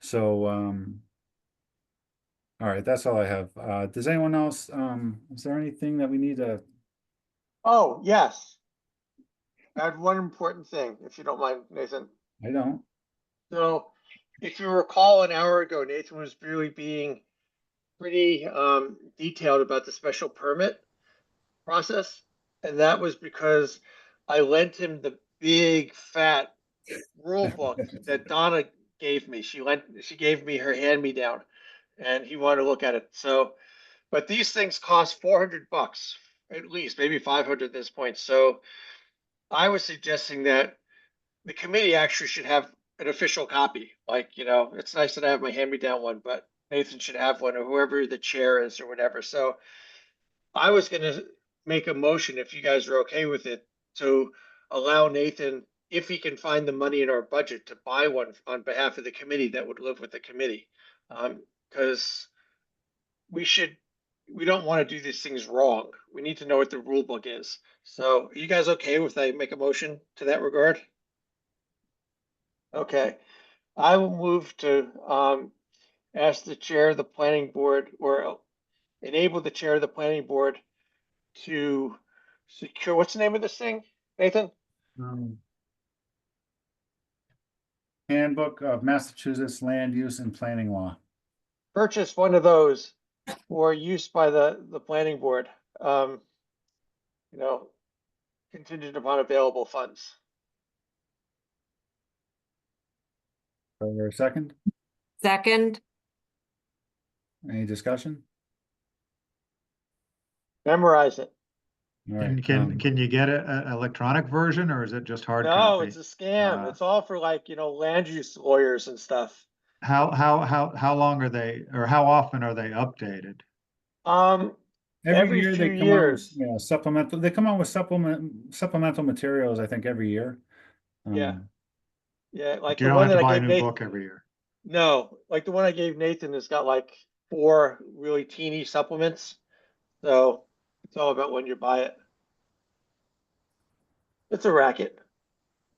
So, um, all right, that's all I have. Uh, does anyone else, um, is there anything that we need to, Oh, yes. I had one important thing, if you don't mind, Nathan. I don't, So, if you recall an hour ago, Nathan was really being pretty um, detailed about the special permit process. And that was because I lent him the big fat rule book that Donna gave me. She lent, she gave me her hand-me-down and he wanted to look at it. So, but these things cost four hundred bucks at least, maybe five hundred at this point. So I was suggesting that the committee actually should have an official copy. Like, you know, it's nice that I have my hand-me-down one, but Nathan should have one or whoever the chair is or whatever. So I was gonna make a motion if you guys are okay with it to allow Nathan, if he can find the money in our budget, to buy one on behalf of the committee that would live with the committee. Um, cause we should, we don't wanna do these things wrong. We need to know what the rule book is. So are you guys okay with I make a motion to that regard? Okay, I will move to um ask the chair of the planning board or enable the chair of the planning board to secure, what's the name of this thing, Nathan? um, handbook of Massachusetts land use and planning law. Purchase one of those for use by the the planning board. Um, you know, contingent upon available funds. Is there a second? Second, Any discussion? Memorize it. All And right, can, um, can you get a, a electronic version or is it just hard No, copy? it's a scam. Uh, It's all for like, you know, land use lawyers and stuff. How, how, how, how long are they, or how often are they updated? Um, every Every year they come out, few with, years. you know, supplemental, they come out with supplement, supplemental materials, I think, every year. Yeah. Um, yeah, like You the don't one have that to buy I a gave new Nathan. book every year. No, like the one I gave Nathan has got like four really teeny supplements. So it's all about when you buy it. It's a racket.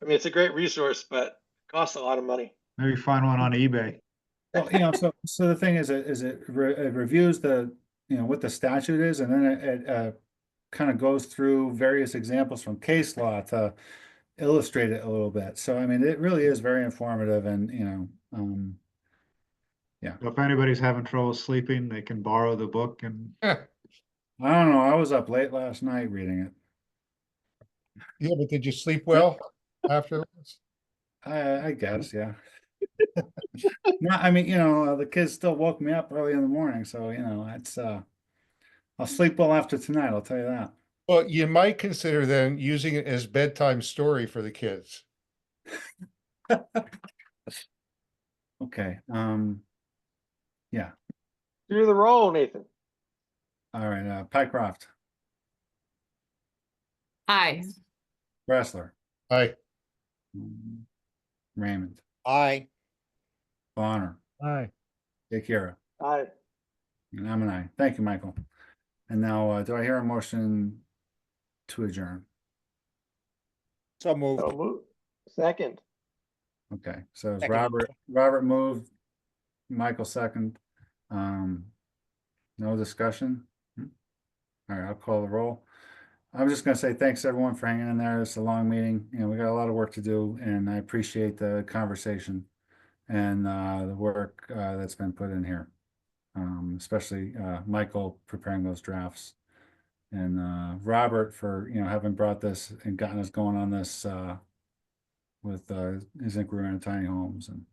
I mean, it's a great resource, but it costs a lot of money. Maybe find one on eBay. Well, you know, so, so the thing is, it is it re- it reviews the, you know, what the statute is, and then it, it, uh, kind of goes through various examples from case law to illustrate it a little bit. So, I mean, it really is very informative and, you know, um, If anybody's having trouble sleeping, they can borrow the book and I don't know, I was up late last night reading it. Yeah, but did you sleep well afterwards? I, I guess, yeah. No, I mean, you know, uh, the kids still woke me up early in the morning, so, you know, it's, uh, I'll sleep well after tonight, I'll tell you that. Well, you might consider then using it as bedtime story for the kids. Okay, um, Do the roll, Nathan. all right, uh, Pycroft, aye. Wrestler. Aye. Mm. Raymond, Aye. Bonner, Aye. Akira, Aye. and I'm an I. Thank you, Michael. And now, uh, do I hear a motion to adjourn? So So moved. move. Second. Okay, so it's Second. Robert, Robert moved, Michael second. Um, no discussion? Hmm. All right, I'll call the roll. I'm just gonna say thanks everyone for hanging in there. It's a long meeting, you know, we got a lot of work to do and I appreciate the conversation and uh, the work uh, that's been put in here. Um, especially uh, Michael preparing those drafts. And uh, Robert for, you know, having brought this and gotten us going on this uh, with uh his inquiry on tiny homes and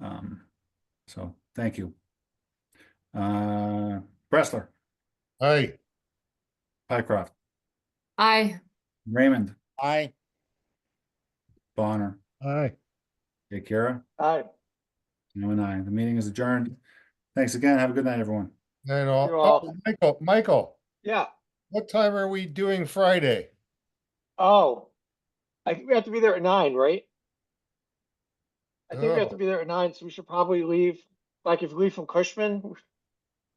um so thank you. Uh Bressler, Aye. Pycroft, Aye. Raymond, Aye. Bonner, Aye. Akira, Aye. you and I. The meeting is adjourned. Thanks again. Have a good night, everyone. Then You're all, all- oh, Michael, Michael, Yeah. what time are we doing Friday? Oh. I think we have to be there at nine, right? I think we have to Oh. be there at nine, so we should probably leave, like if we leave from Cushman,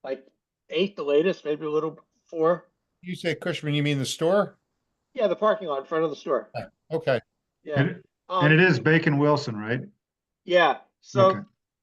like eight the latest, maybe a little before. You say Cushman, you mean the store? Yeah, the parking lot in front of the store. Okay. Yeah. And, and it Um, is Bacon Wilson, right? Yeah, so Okay.